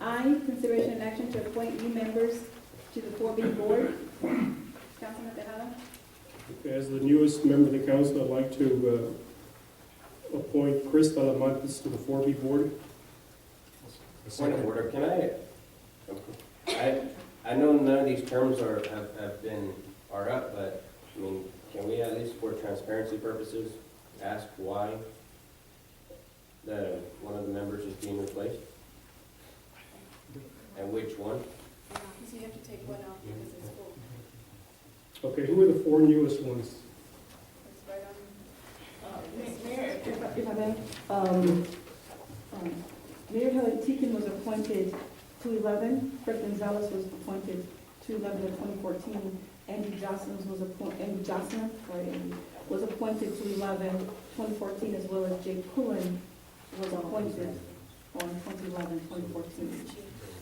I, consideration and action to appoint new members to the 4B board. Councilman Tejada? As the newest member of the council, I'd like to uh, appoint Chris Talamantes to the 4B board. Point of order, can I, I, I know none of these terms are, have, have been, are up, but, I mean, can we at least for transparency purposes, ask why the, one of the members is being replaced? And which one? So you have to take one off because it's full. Okay, who are the four newest ones? It's right on. If I- if I may, um, um, Mayor Helen Teakin was appointed to 11, Fred Gonzalez was appointed to 11 of 2014, Andy Jocelyn was appointed, Andy Jocelyn, sorry, Andy, was appointed to 11, 2014, as well as Jake Pullen was appointed on 2011, 2014.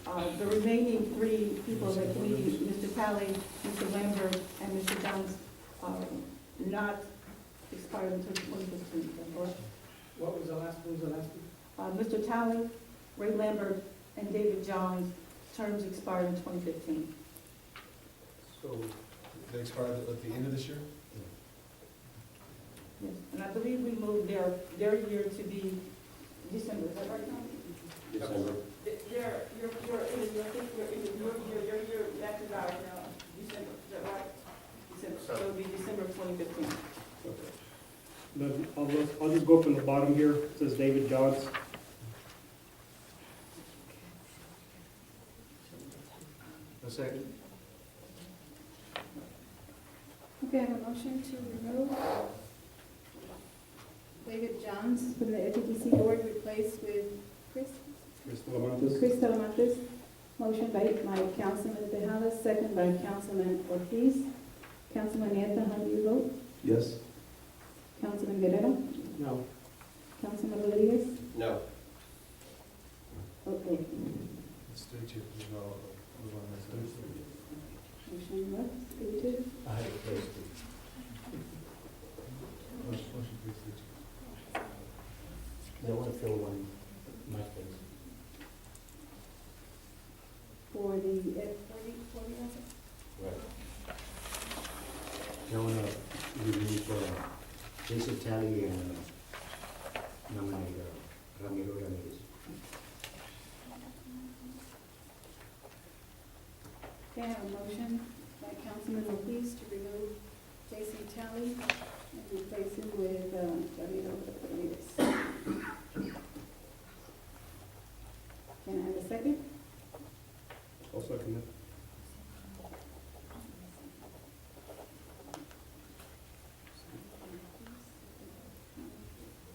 Uh, The remaining three people in the committee, Mr. Talley, Mr. Lambert, and Mr. Jones, um, not expired until 2015, is that correct? What was the last, what was the last? one? Uh, Mr. Talley, Ray Lambert, and David Johns, terms expired in 2015. So they expire at the end of this year? Yes. And I believe we moved their, their year to be December, is that right? December? Their, your, your, I think your, your, your year, that is ours now, December, is that right? December, so it'll be December 2015. Okay. Then I'll, look- I'll just go from the bottom here, it says David Johns. A second. Okay, I have a motion to remove David Johns from the FTC board, replaced with Chris Chris Talamantes. Chris Talamantes. Motion by my Councilman Tejada, second by Councilman Ortiz. Councilman Nieto, how do you vote? Yes. Councilman Guerrero? No. Councilman Rodriguez? No, Okay. It's three two, you know, move on to the next one. Motion left, three two. I had it placed. Motion, motion, please, three two. For the F forty, forty, I think. I want to remove uh, Jason Talley and uh, nominate uh, Ramiro Ramirez. Okay, I have a motion by Councilman Ortiz to remove Jason Talley and replace him with, um, Javier Rodriguez. Can I have a second? I'll second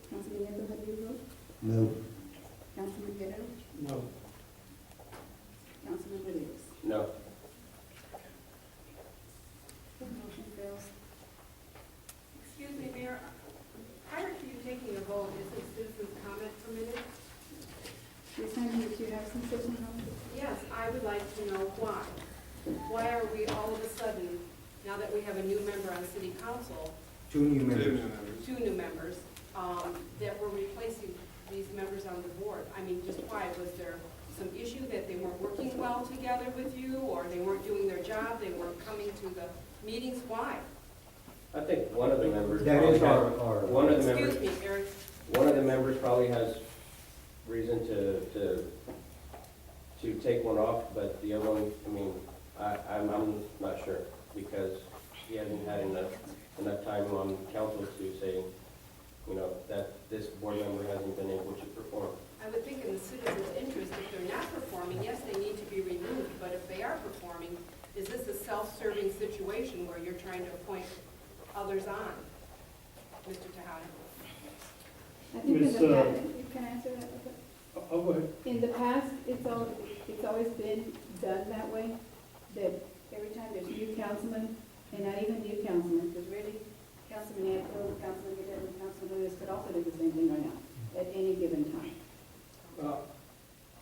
Councilman Nieto, how do you vote? No. Councilman Guerrero? No. Councilman Rodriguez? no. Motion fails. Excuse me, Mayor, prior to you taking a vote, is this citizen's comment permitted? Ms. Hyman, did you have some citizen comments? Yes, I would like to know why. Why are we all of a sudden, now that we have a new member on city council, Two new members. two new members, um, that we're replacing these members on the board? I mean, just why? Was there some issue that they weren't working well together with you, or they weren't doing their job, they weren't coming to the meetings? Why? I think one of the members. That is probably our, had- our. One of the members. Excuse me, Eric, One of the members probably has reason to, to, to take one off, but the other one, I mean, I, I'm, I'm not sure, because he hasn't had enough, enough time on council to say, you know, that this board member hasn't been able to perform. I would think in the citizen's interest, if they're not performing, yes, they need to be removed, but if they are performing, is this a self-serving situation where you're trying to appoint others on, Mr. Tahada? I think in Ms., the uh, past, you can answer that. okay. I'll I'll go ahead. In the past, it's al, it's always been done that way, that every time there's new councilman, and not even new councilman, because really, Councilman Anthony, Councilman Guerrero, and Councilman Lewis could also do the same thing right now, at any given time. Uh, Well,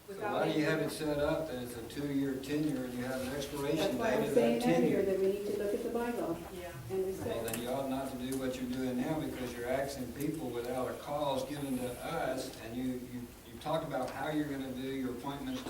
Without making- set up that it's a two-year tenure and you have an That's expiration why I'm saying earlier that we need to look at the bylaw Yeah. and respect. then you ought not to do what you're doing now because you're axing people without a cause given to us and you, you, you talk about how you're gonna do your appointment